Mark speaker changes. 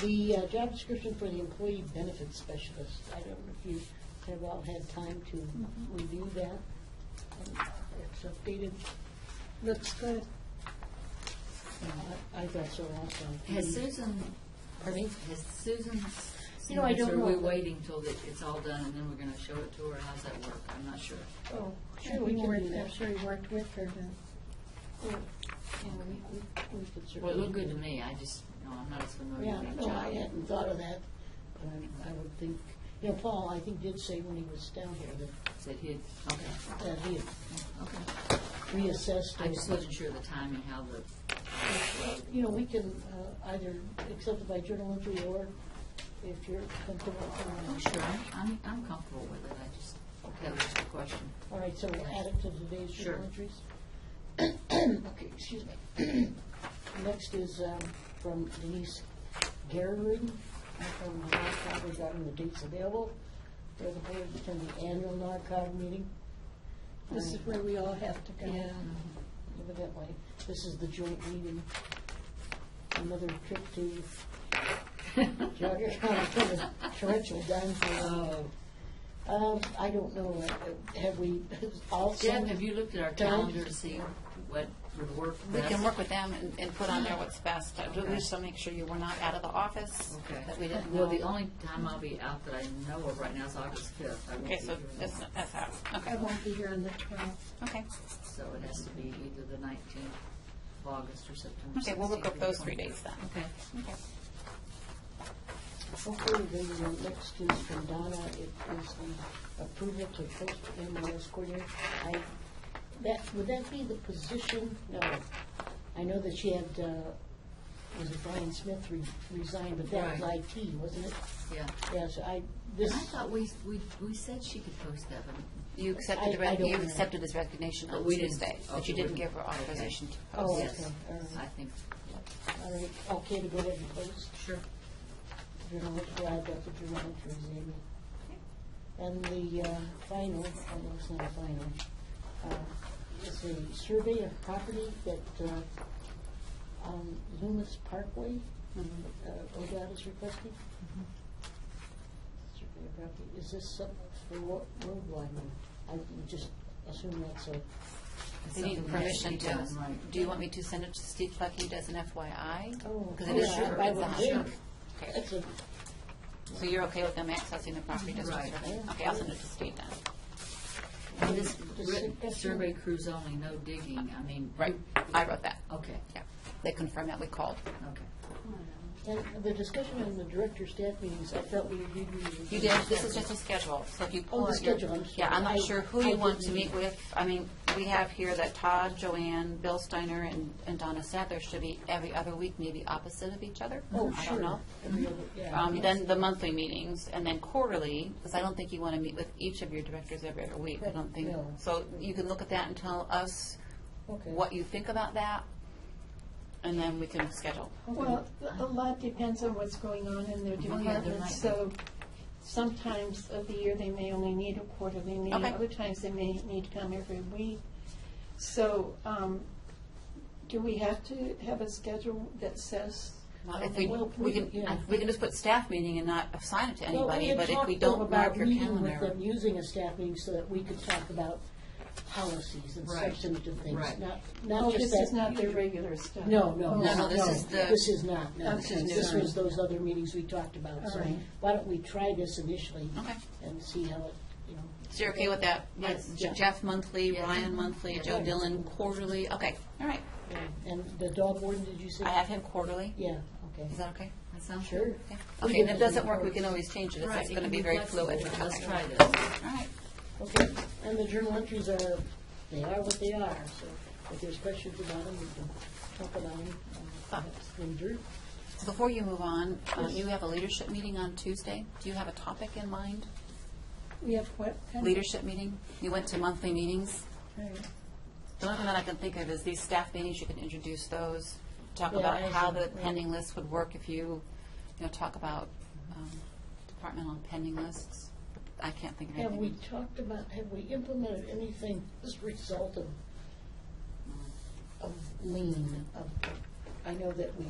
Speaker 1: The uh, job description for the employee benefits specialist, I don't know if you have all had time to
Speaker 2: Mm-hmm.
Speaker 1: review that. Um, It's updated.
Speaker 3: Looks good.
Speaker 1: Uh, I I thought so also.
Speaker 2: Has
Speaker 1: Mm-hmm.
Speaker 2: Susan,
Speaker 1: Pardon me?
Speaker 2: has Susan? s-
Speaker 1: You know, I
Speaker 2: seen this,
Speaker 1: don't
Speaker 2: Or are we
Speaker 1: know.
Speaker 2: waiting till that it's all done and then we're going to show it to her? How's that work? I'm not sure.
Speaker 1: Oh,
Speaker 3: Yeah,
Speaker 1: sure, we
Speaker 3: you
Speaker 1: can
Speaker 3: worked-
Speaker 1: do that.
Speaker 3: I'm sure you worked with her, then.
Speaker 1: Yeah, we- we- we could
Speaker 2: Well, it
Speaker 1: certainly
Speaker 2: looked good
Speaker 1: do
Speaker 2: to
Speaker 1: that.
Speaker 2: me. I just, no, I'm not as familiar
Speaker 1: Yeah,
Speaker 2: with that
Speaker 1: no, I
Speaker 2: job.
Speaker 1: hadn't thought of that, but I- I would think, you know, Paul, I think did say when he was down here that,
Speaker 2: That he had, okay,
Speaker 1: that he had
Speaker 2: okay.
Speaker 1: reassessed.
Speaker 2: I just
Speaker 1: or-
Speaker 2: wasn't sure of the timing, how the,
Speaker 1: You know, we can uh, either accept it by journal entry or if you're comfortable. uh,
Speaker 2: I'm sure, I'm, I'm comfortable with it. I just, that was just a question.
Speaker 1: All right, so we'll add it to today's
Speaker 2: Sure.
Speaker 1: journal entries. Okay, excuse me. Next is um, from Denise Gehrig, from the NARCOG regarding the dates available. They're the board to attend the annual NARCOG meeting.
Speaker 3: This is where we all have to go.
Speaker 1: Yeah, evidently. This is the joint meeting. Another trip to Jogger County for the torrential downpour.
Speaker 2: Oh.
Speaker 1: Um, I don't know, uh, have we, all
Speaker 2: Deb,
Speaker 1: summoned?
Speaker 2: have you looked at our
Speaker 1: Don't.
Speaker 2: calendar to see what would work
Speaker 4: We
Speaker 2: best?
Speaker 4: can work with them and, and put on there what's best. I do- We just want to make sure you were not out of the office,
Speaker 2: Okay.
Speaker 4: that we didn't
Speaker 2: Well, the
Speaker 4: know.
Speaker 2: only time I'll be out that I know of right now is August fifth. I won't
Speaker 4: Okay,
Speaker 2: be
Speaker 4: so
Speaker 2: here on
Speaker 4: that's,
Speaker 2: that.
Speaker 4: that's out.
Speaker 3: I
Speaker 4: Okay,
Speaker 3: won't be here on the 12th.
Speaker 4: okay.
Speaker 2: So it has to be either the nineteenth of August or September.
Speaker 4: Okay, we'll look
Speaker 2: 16th or
Speaker 4: up those three
Speaker 2: 20th.
Speaker 4: dates then.
Speaker 2: Okay.
Speaker 4: Okay.
Speaker 1: Okay, then the next is from Donna, it is um, the approval to post MLS coordinator. I, that, would that be the position? No. I know that she had, uh, was it Brian Smith re- resigned, but that was
Speaker 2: Right.
Speaker 1: IT, wasn't it?
Speaker 2: Yeah.
Speaker 1: Yes, I,
Speaker 2: I
Speaker 1: this,
Speaker 2: thought we, we, we said she could post that, but.
Speaker 4: You
Speaker 1: I-
Speaker 4: accepted, the
Speaker 1: I
Speaker 4: re-
Speaker 1: don't
Speaker 4: you
Speaker 1: know.
Speaker 4: accepted his resignation
Speaker 2: But
Speaker 4: on
Speaker 2: we didn't-
Speaker 4: Tuesday, but
Speaker 2: okay,
Speaker 4: you didn't
Speaker 2: we-
Speaker 4: give her
Speaker 2: okay.
Speaker 4: authorization to
Speaker 1: Oh,
Speaker 4: post.
Speaker 2: Yes,
Speaker 1: okay, all right.
Speaker 2: I think,
Speaker 1: all right, okay to go ahead and post?
Speaker 2: sure.
Speaker 1: Journal entry, I've got the journal entries, Amy. And the uh, final, although it's not a final, uh, is a survey of property that uh, on Loomis Parkway, uh, ODOT is requesting. Survey of property, is this something for what road widening? I would just assume that's a,
Speaker 4: They
Speaker 2: Something that
Speaker 4: need
Speaker 2: should
Speaker 4: permission
Speaker 2: be
Speaker 4: to,
Speaker 2: done, right.
Speaker 4: do you want me to send it to Steve Clucky as an FYI?
Speaker 1: Oh,
Speaker 4: Because it is,
Speaker 1: sure, I
Speaker 4: it's
Speaker 1: would
Speaker 4: on.
Speaker 1: think.
Speaker 4: Okay.
Speaker 1: that's a,
Speaker 4: So you're okay with them accessing the property district?
Speaker 2: Right.
Speaker 4: survey? Okay, I'll send it to Steve then.
Speaker 2: And this
Speaker 1: Just
Speaker 2: written
Speaker 1: sit-
Speaker 2: survey crews only, no digging, I mean.
Speaker 4: Right, I wrote that.
Speaker 2: Okay,
Speaker 4: Yeah, they confirmed that, we called.
Speaker 2: okay.
Speaker 1: and the discussion on the director staff meetings, I thought we agreed we would.
Speaker 4: You did, this is just a schedule, so if you
Speaker 1: Oh,
Speaker 4: pull.
Speaker 1: the
Speaker 4: out your-
Speaker 1: schedule, I'm
Speaker 4: Yeah, I'm
Speaker 1: sorry.
Speaker 4: not
Speaker 1: I-
Speaker 4: sure who
Speaker 1: I
Speaker 4: you want to
Speaker 1: didn't-
Speaker 4: meet with. I mean, we have here that Todd, Joanne, Bill Steiner, and and Donna Said there should be every other week, maybe opposite of each other.
Speaker 1: Oh,
Speaker 4: I
Speaker 1: sure.
Speaker 4: don't know.
Speaker 1: Every other- yeah.
Speaker 4: Um, Then the monthly meetings, and then quarterly, because I don't think you want to meet with each of your directors every other week, I don't think.
Speaker 1: No.
Speaker 4: So you can look at that and tell us
Speaker 1: Okay.
Speaker 4: what you think about that, and then we can schedule.
Speaker 3: Well, a lot depends on what's going on in their
Speaker 2: yeah, there
Speaker 3: department,
Speaker 2: might
Speaker 3: so sometimes of the year, they may only need a quarterly meeting.
Speaker 4: Okay.
Speaker 3: Other times, they may need to come every week. So, um, do we have to have a schedule that says?
Speaker 4: Well, If we,
Speaker 1: Well,
Speaker 4: we
Speaker 1: we-
Speaker 4: can,
Speaker 1: yeah.
Speaker 4: we can just put staff meeting and not assign it to
Speaker 1: Well,
Speaker 4: anybody,
Speaker 1: had
Speaker 4: but if we
Speaker 1: talked, though,
Speaker 4: don't
Speaker 1: about
Speaker 4: mark your
Speaker 1: meeting With
Speaker 4: calendar.
Speaker 1: them using a staff meeting so that we could talk about policies and
Speaker 2: Right.
Speaker 1: substantive things,
Speaker 2: Right.
Speaker 1: not,
Speaker 3: Oh,
Speaker 1: not just
Speaker 3: this is
Speaker 1: that.
Speaker 3: not their regular stuff?
Speaker 1: No, no,
Speaker 3: Oh,
Speaker 1: no, no.
Speaker 4: no, this is the-
Speaker 1: This is not, no.
Speaker 3: This is
Speaker 1: This
Speaker 3: new.
Speaker 1: was those other meetings we talked about, so
Speaker 3: All right.
Speaker 1: why don't we try this initially?
Speaker 4: Okay.
Speaker 1: And see how it, you know.
Speaker 4: So you're okay with that?
Speaker 1: Yes.
Speaker 4: Like Jeff monthly,
Speaker 2: Yeah.
Speaker 4: Ryan monthly, Joe
Speaker 1: Yeah.
Speaker 4: Dillon quarterly, okay, all right.
Speaker 1: And the dog warden, did you say?
Speaker 4: I have him quarterly,
Speaker 1: Yeah, okay.
Speaker 4: is that okay?
Speaker 2: That sounds
Speaker 1: Sure.
Speaker 2: good.
Speaker 4: Yeah.
Speaker 1: We can
Speaker 4: Okay, if it
Speaker 1: definitely
Speaker 4: doesn't work, we
Speaker 1: work.
Speaker 4: can always change it,
Speaker 2: Right,
Speaker 4: it's
Speaker 2: it
Speaker 4: going to
Speaker 2: can
Speaker 4: be very
Speaker 2: flexible.
Speaker 4: fluid.
Speaker 2: Let's
Speaker 4: Okay.
Speaker 2: try this.
Speaker 4: All right,
Speaker 1: Okay, and the journal entries are, they are what they are, so if there's questions about them, we can talk about them uh, perhaps later.
Speaker 4: before you move on, um,
Speaker 1: Yes.
Speaker 4: you have a leadership meeting on Tuesday, do you have a topic in mind?
Speaker 3: We have what? kind of-
Speaker 4: Leadership meeting, you went to monthly meetings?
Speaker 3: Right.
Speaker 4: The only thing that I can think of is these staff meetings, you can introduce those, talk
Speaker 1: Yeah,
Speaker 4: about
Speaker 1: I
Speaker 4: how
Speaker 1: see.
Speaker 4: the pending list would work if you, you know, talk about um, departmental and pending lists. I can't think of
Speaker 1: Have we
Speaker 4: anything.
Speaker 1: talked about, have we implemented anything as a result of, of lean? of- I know that we